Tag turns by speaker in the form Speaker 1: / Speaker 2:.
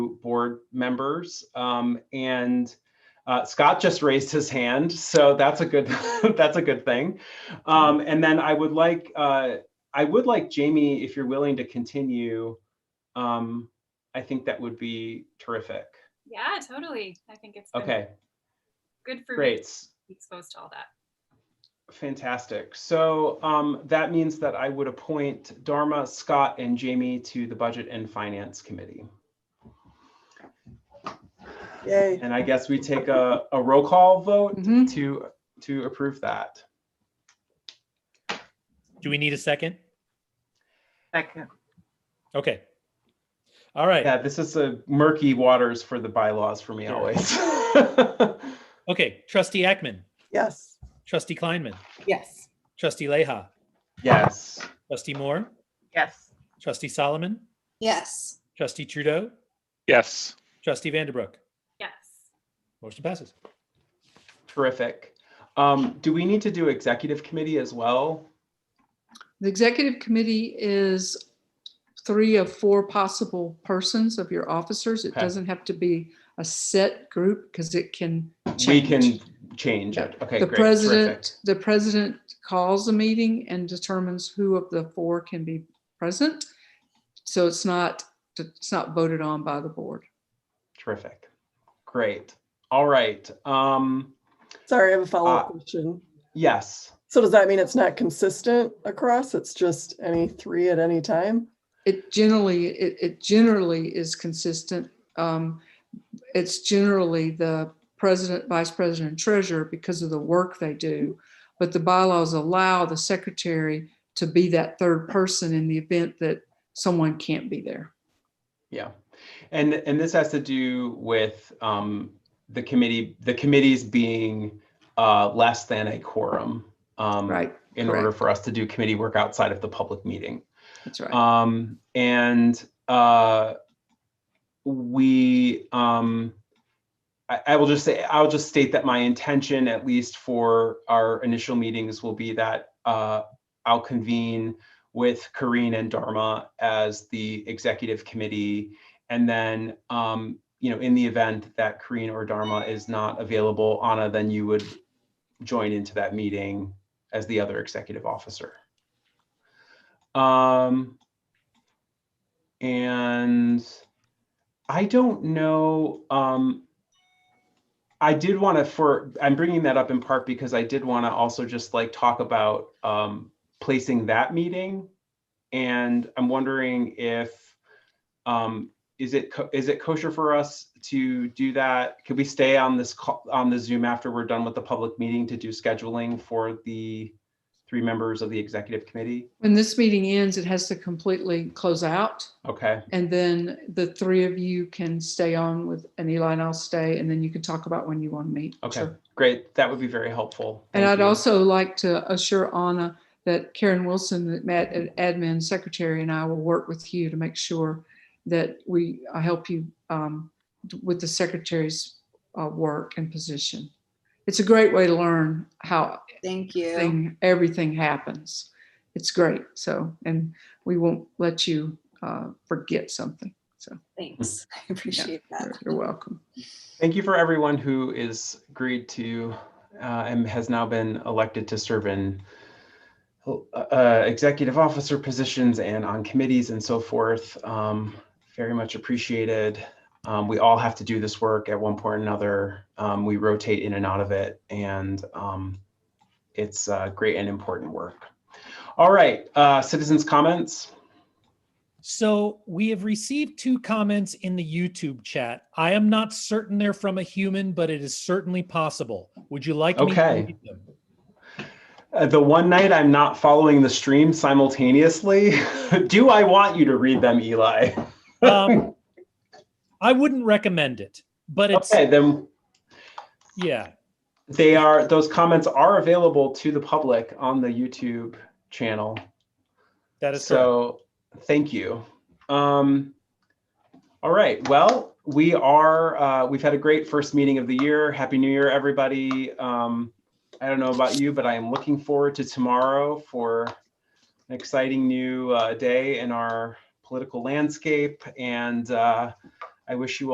Speaker 1: board members. Um, and uh, Scott just raised his hand, so that's a good that's a good thing. Um, and then I would like uh, I would like Jamie, if you're willing to continue, um, I think that would be terrific.
Speaker 2: Yeah, totally. I think it's been
Speaker 1: Okay,
Speaker 2: good for me
Speaker 1: great,
Speaker 2: to be exposed to all that.
Speaker 1: fantastic. So um, that means that I would appoint Dharma, Scott, and Jamie to the Budget and Finance Committee.
Speaker 3: Yay.
Speaker 1: And I guess we take a, a roll call vote
Speaker 4: Mhm.
Speaker 1: to to approve that.
Speaker 5: Do we need a second?
Speaker 3: Second.
Speaker 5: Okay. All right.
Speaker 1: Yeah, this is a murky waters for the bylaws for me
Speaker 5: Sure.
Speaker 1: always.
Speaker 5: Okay. Trustee Ackman,
Speaker 3: Yes.
Speaker 5: trustee Kleinman,
Speaker 4: Yes.
Speaker 5: trustee Leha,
Speaker 1: yes.
Speaker 5: trustee Moore,
Speaker 3: Yes.
Speaker 5: trustee Solomon,
Speaker 6: Yes.
Speaker 5: trustee Trudeau,
Speaker 7: Yes.
Speaker 5: trustee Vanderbrook.
Speaker 2: Yes.
Speaker 5: Motion passes.
Speaker 1: Terrific. Um, do we need to do executive committee as well?
Speaker 4: The executive committee is three of four possible persons of your officers. It
Speaker 1: Okay.
Speaker 4: doesn't have to be a set group because it can
Speaker 1: We
Speaker 4: change.
Speaker 1: can change it. Okay,
Speaker 4: The
Speaker 1: great. Terrific.
Speaker 4: president, the president calls a meeting and determines who of the four can be present. So it's not, it's not voted on by the board.
Speaker 1: Terrific. Great. All right. Um,
Speaker 3: Sorry, I have a
Speaker 1: Ah.
Speaker 3: follow-up question.
Speaker 1: yes.
Speaker 3: So does that mean it's not consistent across? It's just any three at any time?
Speaker 4: It generally, it, it generally is consistent. Um, It's generally the president, vice president, and treasurer because of the work they do. But the bylaws allow the secretary to be that third person in the event that someone can't be there.
Speaker 1: Yeah. And and this has to do with um, the committee, the committees being uh, less than a quorum. Um,
Speaker 4: Right,
Speaker 1: in order for us to do committee work outside of the public meeting.
Speaker 4: that's right.
Speaker 1: Um, and uh, we, um, I, I will just say, I'll just state that my intention, at least for our initial meetings, will be that uh, I'll convene with Kareen and Dharma as the executive committee. And then, um, you know, in the event that Kareen or Dharma is not available, Anna, then you would join into that meeting as the other executive officer. Um, and I don't know, um, I did want to for, I'm bringing that up in part because I did want to also just like talk about, um, placing that meeting. And I'm wondering if, um, is it, co- is it kosher for us to do that? Could we stay on this, call on the Zoom after we're done with the public meeting to do scheduling for the three members of the executive committee?
Speaker 4: When this meeting ends, it has to completely close out.
Speaker 1: Okay,
Speaker 4: And then the three of you can stay on with, and Eli and I'll stay, and then you can talk about when you want to meet.
Speaker 1: okay,
Speaker 4: Sure.
Speaker 1: great. That would be very helpful.
Speaker 4: And
Speaker 1: Thank
Speaker 4: I'd
Speaker 1: you.
Speaker 4: also like to assure Anna that Karen Wilson, that Matt, at admin secretary, and I will work with you to make sure that we, I help you um, with the secretary's uh, work and position. It's a great way to learn how
Speaker 6: Thank you.
Speaker 4: thing, everything happens. It's great. So, and we won't let you uh, forget something. So
Speaker 6: Thanks. I appreciate that.
Speaker 4: you're- you're welcome.
Speaker 1: Thank you for everyone who is agreed to uh, and has now been elected to serve in uh, executive officer positions and on committees and so forth. Um, Very much appreciated. Um, We all have to do this work at one point or another. Um, We rotate in and out of it and um, it's uh, great and important work. All right, uh, citizens' comments?
Speaker 5: So we have received two comments in the YouTube chat. I am not certain they're from a human, but it is certainly possible. Would you like me
Speaker 1: Okay.
Speaker 5: to read them?
Speaker 1: Uh, the one night I'm not following the stream simultaneously, do I want you to read them, Eli?
Speaker 5: Um, I wouldn't recommend it, but it's,
Speaker 1: Okay, then
Speaker 5: yeah.
Speaker 1: they are, those comments are available to the public on the YouTube channel.
Speaker 5: That is correct.
Speaker 1: So, thank you. Um, all right, well, we are, uh, we've had a great first meeting of the year. Happy New Year, everybody. Um, I don't know about you, but I am looking forward to tomorrow for an exciting new uh, day in our political landscape. And uh, I wish you